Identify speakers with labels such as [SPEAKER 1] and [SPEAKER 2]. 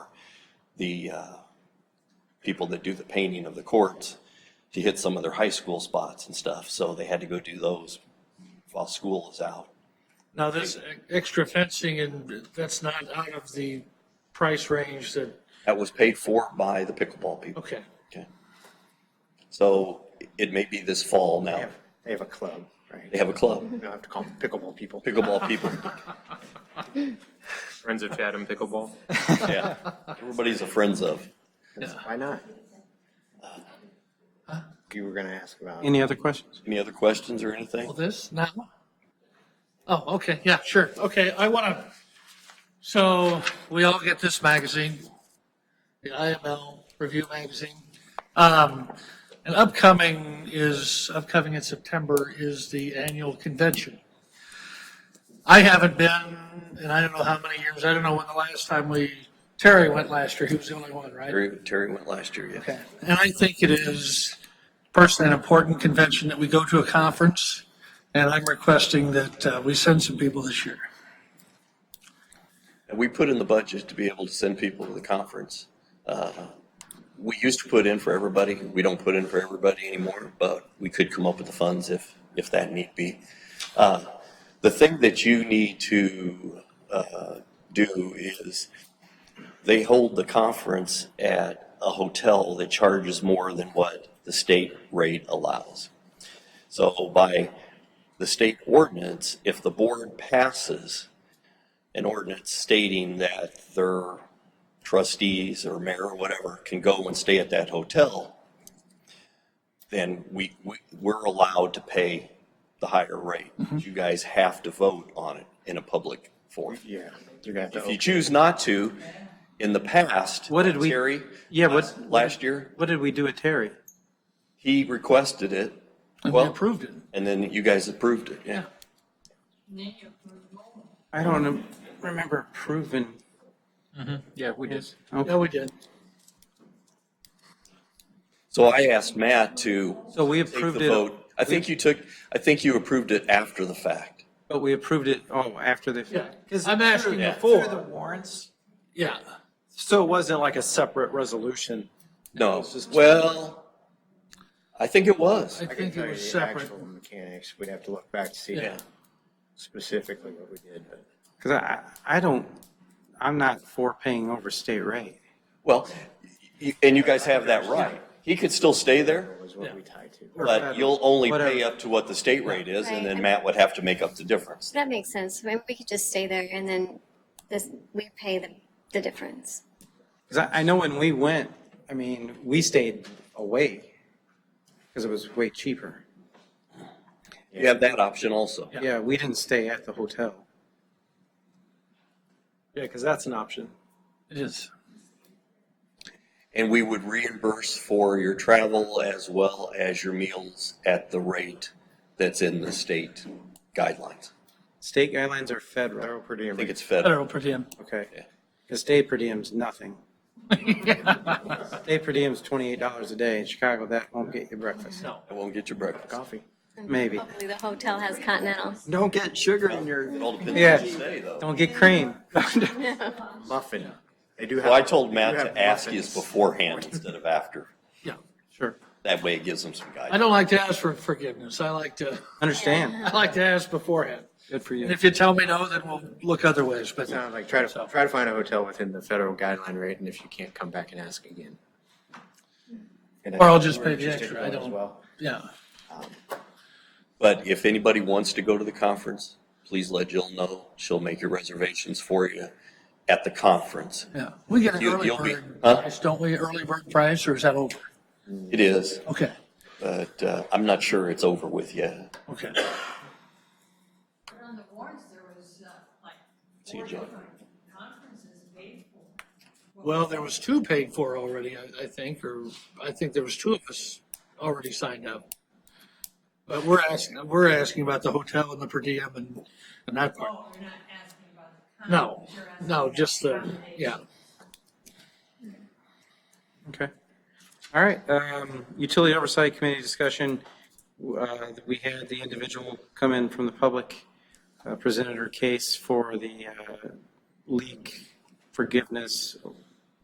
[SPEAKER 1] the uh, people that do the painting of the courts to hit some of their high school spots and stuff, so they had to go do those while school was out.
[SPEAKER 2] Now, this extra fencing and that's not out of the price range that,
[SPEAKER 1] That was paid for by the pickleball people.
[SPEAKER 2] okay.
[SPEAKER 1] Okay. So it may be this fall
[SPEAKER 3] They
[SPEAKER 1] now.
[SPEAKER 3] have, they have a club,
[SPEAKER 1] They
[SPEAKER 3] right?
[SPEAKER 1] have a club,
[SPEAKER 3] You don't have to call them pickleball people.
[SPEAKER 1] pickleball people.
[SPEAKER 4] Friends of Chatham Pickleball.
[SPEAKER 1] Yeah. Everybody's a friends of.
[SPEAKER 3] Why not? You were gonna ask about,
[SPEAKER 5] Any other questions?
[SPEAKER 1] Any other questions or anything?
[SPEAKER 2] Well, this now? Oh, okay, yeah, sure. Okay, I want to, so we all get this magazine, the IML Review Magazine. Um, And upcoming is, upcoming in September is the annual convention. I haven't been, and I don't know how many years, I don't know when the last time we, Terry went last year, he was the only one, right?
[SPEAKER 1] Terry, Terry went last year, yeah.
[SPEAKER 2] Okay. And I think it is personally an important convention that we go to a conference, and I'm requesting that uh, we send some people this year.
[SPEAKER 1] And we put in the budget to be able to send people to the conference. Uh, We used to put in for everybody. We don't put in for everybody anymore, but we could come up with the funds if, if that need be. Uh, The thing that you need to uh, do is they hold the conference at a hotel that charges more than what the state rate allows. So by the state ordinance, if the board passes an ordinance stating that their trustees or mayor or whatever can go and stay at that hotel, then we, we, we're allowed to pay the higher rate. You guys have to vote on it in a public forum.
[SPEAKER 3] yeah, you're gonna have to
[SPEAKER 1] If you
[SPEAKER 3] open
[SPEAKER 1] choose not to, in the past.
[SPEAKER 5] What did we-
[SPEAKER 1] Terry?
[SPEAKER 5] Yeah, what-
[SPEAKER 1] last- Last year,
[SPEAKER 5] What did we do at Terry?
[SPEAKER 1] he requested it.
[SPEAKER 2] And we
[SPEAKER 1] Well,
[SPEAKER 2] approved it.
[SPEAKER 1] And then you guys approved it, yeah.
[SPEAKER 5] I don't rem- remember approving. Mm-hmm.
[SPEAKER 4] Yeah, we did.
[SPEAKER 2] Yeah, we did.
[SPEAKER 1] So I asked Matt to
[SPEAKER 5] So we
[SPEAKER 1] take the
[SPEAKER 5] approved it,
[SPEAKER 1] vote. I think you took, I think you approved it after the fact.
[SPEAKER 5] but we approved it, oh, after the.
[SPEAKER 2] Yeah.
[SPEAKER 5] 'Cause
[SPEAKER 2] I'm asking
[SPEAKER 5] through-
[SPEAKER 2] before.
[SPEAKER 5] Through the warrants,
[SPEAKER 2] Yeah.
[SPEAKER 5] so it wasn't like a separate resolution.
[SPEAKER 1] No, well, I think it was.
[SPEAKER 2] I
[SPEAKER 3] I can
[SPEAKER 2] think
[SPEAKER 3] tell
[SPEAKER 2] it
[SPEAKER 3] you
[SPEAKER 2] was
[SPEAKER 3] the
[SPEAKER 2] separate.
[SPEAKER 3] actual mechanics, we'd have to look back to see
[SPEAKER 2] Yeah.
[SPEAKER 3] specifically what we did, but.
[SPEAKER 5] Because I, I don't, I'm not for paying over state rate.
[SPEAKER 1] Well, y- and you guys have that right. He could still stay there,
[SPEAKER 3] Was what we tied to.
[SPEAKER 1] but you'll only pay
[SPEAKER 5] Whatever.
[SPEAKER 1] up to what the state rate is, and then
[SPEAKER 6] Right.
[SPEAKER 1] Matt would have to make up the difference.
[SPEAKER 6] That makes sense. Maybe we could just stay there and then this, we pay the, the difference.
[SPEAKER 5] Because I, I know when we went, I mean, we stayed away because it was way cheaper.
[SPEAKER 1] You have that option also.
[SPEAKER 5] Yeah, we didn't stay at the hotel.
[SPEAKER 7] Yeah, because that's an option.
[SPEAKER 2] It is.
[SPEAKER 1] And we would reimburse for your travel as well as your meals at the rate that's in the state guidelines.
[SPEAKER 5] State guidelines are federal,
[SPEAKER 3] Federal per diem
[SPEAKER 1] I think it's
[SPEAKER 2] I
[SPEAKER 1] federal.
[SPEAKER 2] don't know, per diem.
[SPEAKER 5] okay? Because state per diem's nothing. State per diem's twenty-eight dollars a day. In Chicago, that won't get you breakfast,
[SPEAKER 1] I won't get your breakfast.
[SPEAKER 3] coffee.
[SPEAKER 5] maybe.
[SPEAKER 6] Hopefully the hotel has continental.
[SPEAKER 7] Don't get sugar in your.
[SPEAKER 1] It all depends
[SPEAKER 5] Yeah.
[SPEAKER 1] on the day, though.
[SPEAKER 5] Don't get cream.
[SPEAKER 3] Muffin. They do have.
[SPEAKER 1] Well, I told
[SPEAKER 3] they
[SPEAKER 1] Matt
[SPEAKER 3] do have
[SPEAKER 1] to ask you
[SPEAKER 3] muffins.
[SPEAKER 1] beforehand instead of after.
[SPEAKER 2] Yeah.
[SPEAKER 5] Sure,
[SPEAKER 1] That way it gives them some
[SPEAKER 2] I
[SPEAKER 1] guidance.
[SPEAKER 2] don't like to ask for forgiveness. I like to,
[SPEAKER 5] understand.
[SPEAKER 2] I like to ask beforehand.
[SPEAKER 5] Good for
[SPEAKER 2] And
[SPEAKER 5] you.
[SPEAKER 2] if you tell me no, then we'll look other ways, but
[SPEAKER 3] No, like try to, try to find a hotel within the federal guideline rate, and if you can't, come back and ask again. And I
[SPEAKER 2] Or I'll
[SPEAKER 3] think
[SPEAKER 2] just
[SPEAKER 3] we're
[SPEAKER 2] pay the
[SPEAKER 3] interested
[SPEAKER 2] extra,
[SPEAKER 3] in
[SPEAKER 2] I
[SPEAKER 3] that as
[SPEAKER 2] don't-
[SPEAKER 3] well.
[SPEAKER 2] yeah.
[SPEAKER 1] But if anybody wants to go to the conference, please let Jill know. She'll make your reservations for you at the conference.
[SPEAKER 2] Yeah. We get an
[SPEAKER 1] You-
[SPEAKER 2] early
[SPEAKER 1] you'll be-
[SPEAKER 2] bird
[SPEAKER 1] huh?
[SPEAKER 2] price, don't we? Early bird price, or is that over?
[SPEAKER 1] It is,
[SPEAKER 2] Okay,
[SPEAKER 1] but uh, I'm not sure it's over with yet.
[SPEAKER 2] okay.
[SPEAKER 8] But on the warrants, there was uh, like
[SPEAKER 1] See you,
[SPEAKER 8] four
[SPEAKER 1] John.
[SPEAKER 8] different conferences paid for.
[SPEAKER 2] Well, there was two paid for already, I, I think, or I think there was two of us already signed up. But we're asking, we're asking about the hotel and the per diem and, and that part.
[SPEAKER 8] Oh, you're not asking about the
[SPEAKER 2] No,
[SPEAKER 8] conference. you're asking
[SPEAKER 2] no,
[SPEAKER 8] about
[SPEAKER 2] just the,
[SPEAKER 8] accommodation.
[SPEAKER 2] yeah.
[SPEAKER 5] Okay. All right, um, utility oversight committee discussion. Uh, we had the individual come in from the public, uh, presented her case for the, uh, leak forgiveness